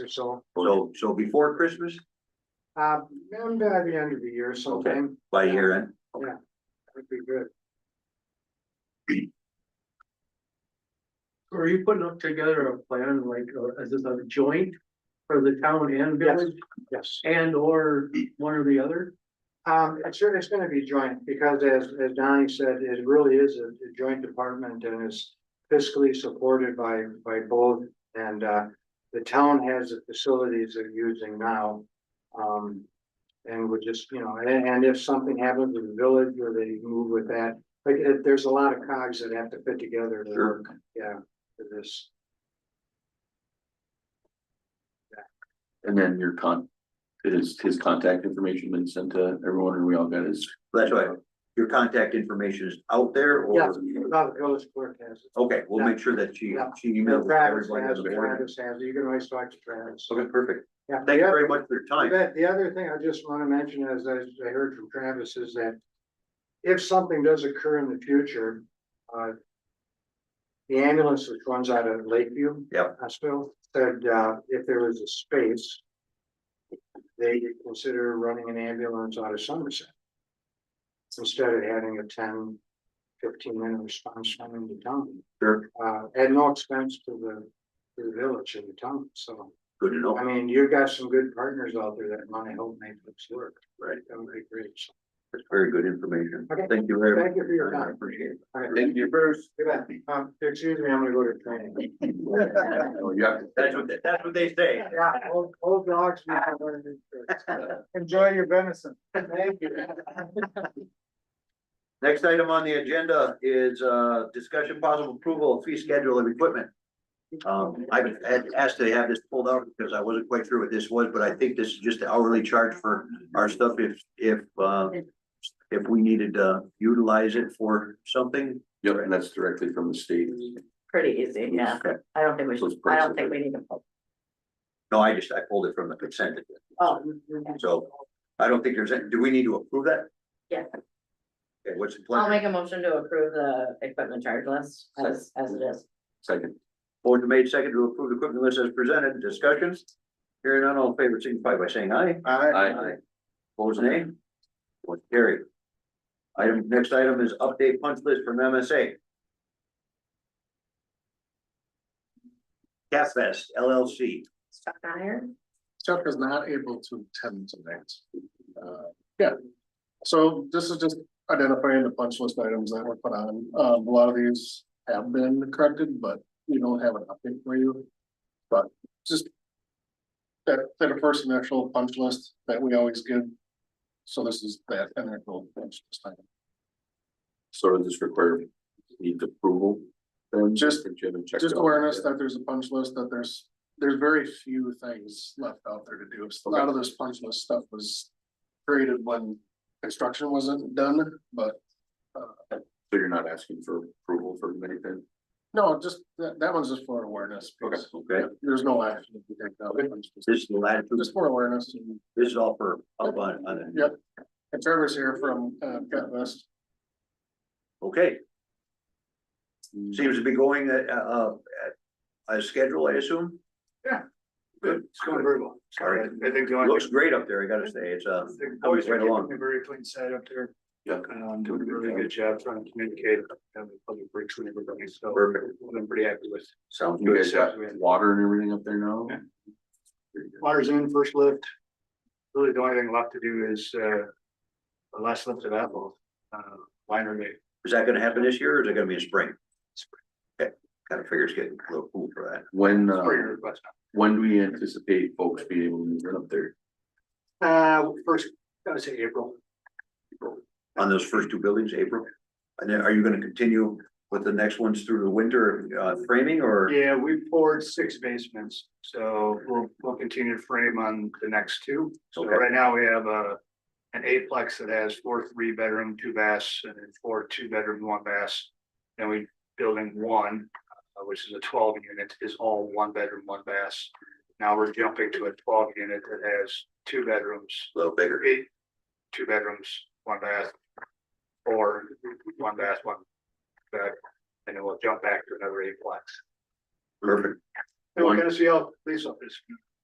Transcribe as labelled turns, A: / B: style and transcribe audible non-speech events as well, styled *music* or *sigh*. A: so,
B: So, so before Christmas,
A: um, maybe by the end of the year sometime,
B: by year end,
A: would be good. Are you putting up together a plan like, uh, as a joint for the town and village? Yes. And or one or the other? Um, it's, it's gonna be joint because as, as Donnie said, it really is a a joint department and is fiscally supported by, by both. And, uh, the town has the facilities they're using now. Um, and would just, you know, and, and if something happens with the village or they move with that, like, it- there's a lot of cogs that have to fit together to
B: Sure.
A: work, yeah, for this.
C: And then your con, his, his contact information been sent to everyone and we all got his.
B: that's why your contact information is out there
A: Yeah,
B: or?
A: not the village clerk has it.
B: Okay, we'll make sure that she,
A: Yeah.
B: she
A: And
B: emails
A: Travis
B: everybody.
A: has, it,
B: beforehand.
A: Travis has, it. you can always talk to Travis.
B: Okay, perfect.
A: Yeah,
B: Thank you
A: yeah.
B: very much for your time.
A: That, the other thing I just wanna mention is, as I heard from Travis, is that if something does occur in the future, uh, the ambulance which runs out of Lakeview.
B: Yep.
A: Hospital, said, uh, if there was a space, they could consider running an ambulance out of Somerset. Instead of having a 10, 15 minute response time in the town,
B: Sure,
A: uh, at no expense to the, to the village and the town, so.
B: good to know.
A: I mean, you've got some good partners out there that want to help make this work.
B: Right.
A: That would be great.
B: That's very good information.
A: Okay.
B: Thank you very much.
A: Thank you for your
B: I
A: time.
B: Appreciate it.
A: All right.
C: Thank you, Bruce.
A: Good night. Um, excuse me, I'm gonna go to training.
C: Oh, You have to.
B: That's what, that's what they say.
A: Yeah, old, old dogs. need to learn new
D: *laughs*
A: tricks. Enjoy your venison. Thank you.
B: Next item on the agenda is uh discussion possible approval of fee schedule of equipment. Um, I had asked to have this pulled out because I wasn't quite sure what this was, but I think this is just the hourly charge for our stuff if if uh. If we needed to utilize it for something.
C: Yep, and that's directly from the state.
E: pretty easy, yeah.
B: Okay.
E: I don't think we should,
C: Those
E: I
C: prices
E: don't think
C: are-
E: we need to. vote.
B: No, I just, I pulled it from the consent. agenda.
E: Oh,
B: So I don't think there's, any. do we need to approve that?
E: Yeah.
B: Okay, what's the
E: I'll
B: pleasure?
E: make a motion to approve the equipment charge list as, as it is.
C: Second,
B: Board made second to approve the equipment list as presented. Discussions? Hearing none, all in favor, signify by saying aye.
C: Aye.
B: Opposed, nay? Motion carried. Item, next item is update punch list from MSA. Cat Fest LLC.
E: Chuck Meyer?
F: Chuck is not able to attend tonight. Uh, yeah, so this is just identifying the punch list items that were put on. Uh, a lot of these have been corrected, but we don't have an update for you. But just that, that first initial punch list that we always give. So this is that initial punch list item.
C: so does this require need approval? then?
F: Just-
C: Or Jim and check
F: Just
C: it out?
F: awareness that there's a punch list, that there's, there's very few things left out there to do. A lot of this punch list stuff was created when construction wasn't done, but
C: So you're not asking for approval for anything?
F: no, just, that, that one's just for awareness. because
B: Okay,
F: There's no action to be taken out. It's just-
B: this is the latitude,
F: Just for awareness. and-
B: this is all for up on, on it.
F: Yep. And Trevor's here from, uh, Cat West.
B: Okay.
F: Mm-hmm.
B: Seems to be going at, uh, at a schedule, I assume.
D: Good, it's going very well.
B: Sorry.
D: I think the only
B: Looks
D: thing,
B: great up there, I gotta say. It's, uh,
D: the
B: coming
D: boys are
B: right along.
D: keeping a very clean side up there.
C: Yeah.
D: Um, doing a really good job trying to communicate and the public works with everybody, so
B: Perfect.
D: I'm pretty happy with.
B: Sounds
C: You
B: good.
C: guys got water and everything up there now?
D: Yeah.
C: Very good.
D: Water's in, first lift. Really, the only thing left to do is, uh, the last lift of Apple, uh, liner made.
B: Is that gonna happen this year or is it gonna be in spring? Okay, kinda figures getting a little cool for that.
C: When,
D: It's
C: uh,
D: pretty good, but,
C: when do we anticipate folks being able to run up there?
D: Uh, first, I would say April.
B: on those first two buildings, April? And then are you gonna continue with the next ones through the winter uh framing or?
D: Yeah, we poured six basements, so we'll, we'll continue to frame on the next two. So
B: Okay.
D: right now we have a, an eightplex that has four three bedroom, two baths, and then four two bedroom, one bath. And we, building one, uh, which is a twelve unit, is all one bedroom, one bath. Now we're jumping to a twelve unit that has two bedrooms,
B: A little bigger,
D: eight, two bedrooms, one bath. Or one bath, one bed, and then we'll jump back to another eightplex.
B: perfect.
D: And we're gonna see how police officers